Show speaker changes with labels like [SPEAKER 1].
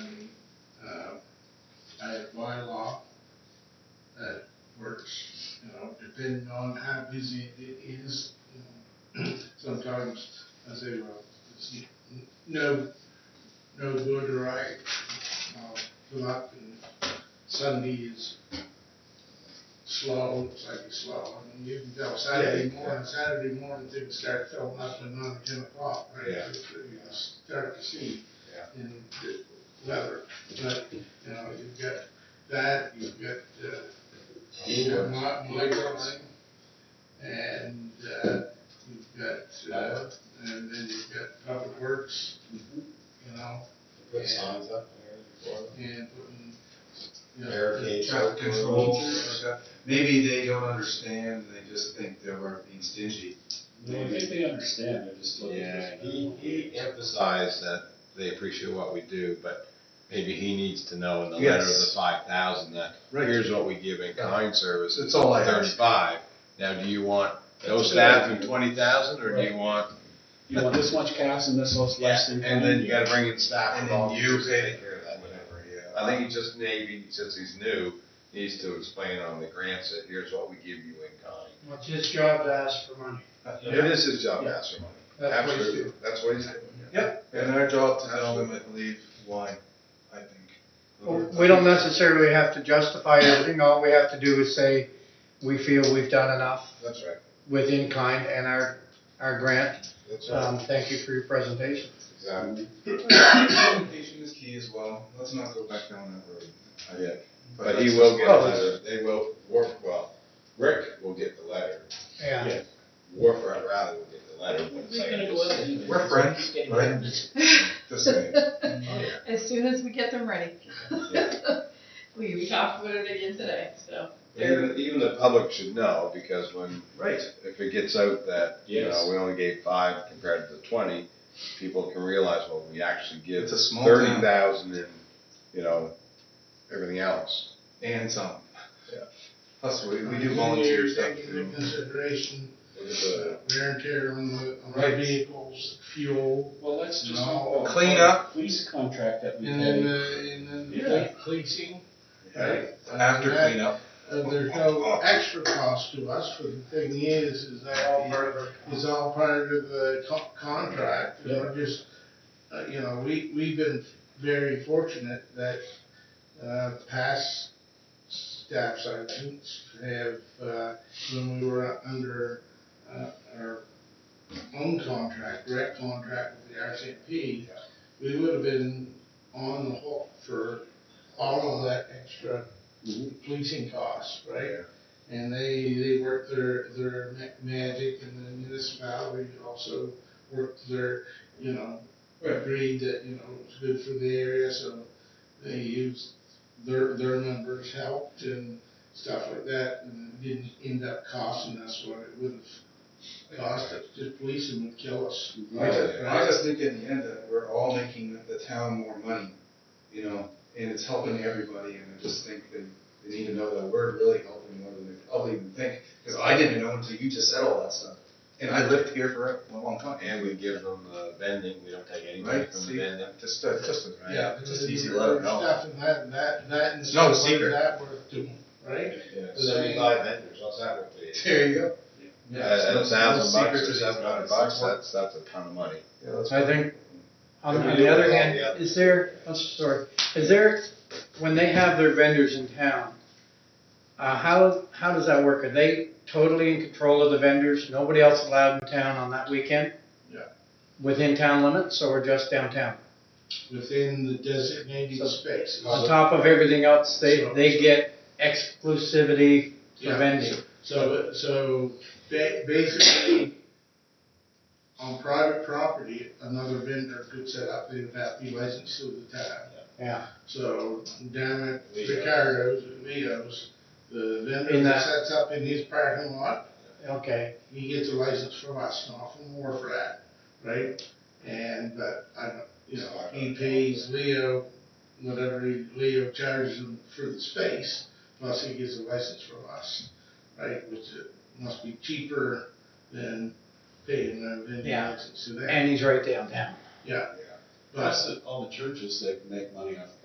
[SPEAKER 1] Uh, that busy it is uh, sometimes as a road. It's n- no, no good, right? Uh, Fill up and Sunday is slow, it's like it's slow. I mean, you can tell Saturday
[SPEAKER 2] Yeah.
[SPEAKER 1] morning, Saturday morning things start filling up at nine, ten o'clock, right?
[SPEAKER 2] Yeah.
[SPEAKER 1] It's- it's Start to see
[SPEAKER 2] Yeah.
[SPEAKER 1] in the weather, but, you know, you've got that, you've got, uh, you've got my, my drawing, and, uh, you've got, uh, and then you've got public works,
[SPEAKER 3] Mm-hmm.
[SPEAKER 1] you know,
[SPEAKER 2] Put signs up there for them.
[SPEAKER 1] and putting, you know.
[SPEAKER 2] Barricades.
[SPEAKER 3] Traffic control, stuff. maybe they don't understand, they just think they were being stingy.
[SPEAKER 4] No, I think they understand, they're just looking.
[SPEAKER 2] Yeah, he, he emphasized that they appreciate what we do, but maybe he needs to know in the letter of the
[SPEAKER 3] Yes.
[SPEAKER 2] five thousand that
[SPEAKER 3] Right.
[SPEAKER 2] here's what we give in kind service.
[SPEAKER 3] That's all I ask.
[SPEAKER 2] Thirty-five. Now, do you want no
[SPEAKER 4] That's a good
[SPEAKER 2] staff and
[SPEAKER 4] idea.
[SPEAKER 2] twenty thousand, or do you want?
[SPEAKER 4] You want this much cash and this much less than.
[SPEAKER 2] And then you gotta bring in staff
[SPEAKER 3] And
[SPEAKER 2] and
[SPEAKER 3] then
[SPEAKER 2] all.
[SPEAKER 3] you
[SPEAKER 2] take
[SPEAKER 3] care of that, whatever, yeah.
[SPEAKER 2] I think he just maybe, since he's new, needs to explain on the grants that here's what we give you in kind.
[SPEAKER 5] Well, it's his job to ask for money.
[SPEAKER 3] Uh,
[SPEAKER 2] It is his job to ask for money.
[SPEAKER 5] That's what he's
[SPEAKER 2] Absolutely. That's what he's doing.
[SPEAKER 3] Yep, and our job to tell them, I believe, why, I
[SPEAKER 5] Well,
[SPEAKER 3] think.
[SPEAKER 5] We don't necessarily have to justify everything, all we have to do is say, we feel we've done enough
[SPEAKER 2] That's right.
[SPEAKER 5] with in-kind and our, our grant.
[SPEAKER 2] That's right.
[SPEAKER 5] Um, thank you for your presentation.
[SPEAKER 2] Exactly.
[SPEAKER 3] Communication is key as well, let's not go back down that road. I think.
[SPEAKER 2] Yeah. But he will get a
[SPEAKER 5] Oh,
[SPEAKER 2] letter, they will, Wharf, well, Rick will get the letter,
[SPEAKER 5] Yeah,
[SPEAKER 2] Wharf or rather will get the letter, but it's
[SPEAKER 6] We're gonna go out
[SPEAKER 2] like.
[SPEAKER 6] and.
[SPEAKER 3] We're friends, right? Just saying.
[SPEAKER 6] As soon as we get them ready. We, we talked about it again today, so.
[SPEAKER 2] Even, even the public should know, because when,
[SPEAKER 3] Right.
[SPEAKER 2] if it gets out that, you know,
[SPEAKER 4] Yes.
[SPEAKER 2] we only gave five compared to the twenty, people can realize, well, we actually give
[SPEAKER 3] It's a small
[SPEAKER 2] thirty
[SPEAKER 3] town,
[SPEAKER 2] thousand and, you know, everything else.
[SPEAKER 3] and some.
[SPEAKER 2] Yeah.
[SPEAKER 3] Plus, we, we do volunteer stuff
[SPEAKER 1] Taking
[SPEAKER 3] too.
[SPEAKER 1] into consideration
[SPEAKER 2] Look at the-
[SPEAKER 1] wear and tear on the, on the
[SPEAKER 3] Right.
[SPEAKER 1] vehicles, fuel,
[SPEAKER 4] Well, let's just.
[SPEAKER 1] No.
[SPEAKER 3] Clean up.
[SPEAKER 4] Police contract that we
[SPEAKER 1] and then,
[SPEAKER 4] pay.
[SPEAKER 1] uh, and then
[SPEAKER 4] Yeah.
[SPEAKER 1] the policing.
[SPEAKER 3] Right.
[SPEAKER 1] Uh,
[SPEAKER 3] After
[SPEAKER 1] that-
[SPEAKER 3] cleanup.
[SPEAKER 1] Uh, there's no extra cost to us, but the thing is, is that is all part of the co- contract. And we're just, uh, you know, we, we've been very fortunate that, uh, past staff sergeants have, uh, when we were under, uh, our own contract, direct contract with the RCMP, we would have been on the hook for all of that extra
[SPEAKER 4] Mhm.
[SPEAKER 1] policing costs, right? And they, they work their, their ma- magic and the municipality also work their, you know, agreed that, you know, it's good for the area, so they used their, their numbers helped and stuff like that, and it didn't end up costing us what it would have cost us, just policing would kill us.
[SPEAKER 3] I just, I just think in the end that we're all making the town more money, you know, and it's helping everybody, and I just think that they need to know that we're really helping more than they probably even think, because I didn't know until you just said all that stuff. And I lived here for a long time,
[SPEAKER 2] And we give them the vending, we don't take anything
[SPEAKER 3] Right,
[SPEAKER 2] from the
[SPEAKER 3] see?
[SPEAKER 2] vending.
[SPEAKER 3] just, uh, just, uh,
[SPEAKER 2] Right.
[SPEAKER 3] yeah, just
[SPEAKER 1] And
[SPEAKER 3] easy
[SPEAKER 1] their
[SPEAKER 3] letter, no.
[SPEAKER 1] Stuff and that, that, that and
[SPEAKER 3] No
[SPEAKER 1] stuff like
[SPEAKER 3] secret.
[SPEAKER 1] that worth doing, right?
[SPEAKER 2] Yeah,
[SPEAKER 1] So they-
[SPEAKER 2] seventy-five vendors, what's that worth to you?
[SPEAKER 3] There you go.
[SPEAKER 2] At at a thousand bucks or
[SPEAKER 3] Secret to
[SPEAKER 2] seven hundred
[SPEAKER 3] these-
[SPEAKER 2] bucks, that's, that's a ton of money.
[SPEAKER 3] Yeah, that's
[SPEAKER 5] I
[SPEAKER 3] right.
[SPEAKER 5] think, on on the other hand, is there, I'm sorry, is there, when they have their vendors in town, uh, how, how does that work? Are they totally in control of the vendors? Nobody else allowed in town on that weekend?
[SPEAKER 1] Yeah.
[SPEAKER 5] Within town limits or just downtown?
[SPEAKER 1] Within the designated
[SPEAKER 5] So-
[SPEAKER 1] spaces.
[SPEAKER 5] On top of everything else, they,
[SPEAKER 1] Uh, So-
[SPEAKER 5] they get exclusivity for
[SPEAKER 1] Yeah.
[SPEAKER 5] vending.
[SPEAKER 1] So, so ba- basically, on private property, another vendor could set up, they would have to be licensed through the town.
[SPEAKER 5] Yeah.
[SPEAKER 1] So down at Ricardo's, Leo's, the vendor
[SPEAKER 5] In
[SPEAKER 1] that
[SPEAKER 5] that-
[SPEAKER 1] sets up in his parking lot,
[SPEAKER 5] Okay,
[SPEAKER 1] he gets a license from us, not from Warfrat, right? And, but I don't, you know, he pays Leo, whatever he- Leo charges him for the space, plus he gets a license from us, right? Which it must be cheaper than paying a vending
[SPEAKER 5] Yeah.
[SPEAKER 1] license to that.
[SPEAKER 5] and he's right downtown.
[SPEAKER 1] Yeah,
[SPEAKER 2] Yeah.
[SPEAKER 1] but,
[SPEAKER 4] Plus, the- all the churches that make money off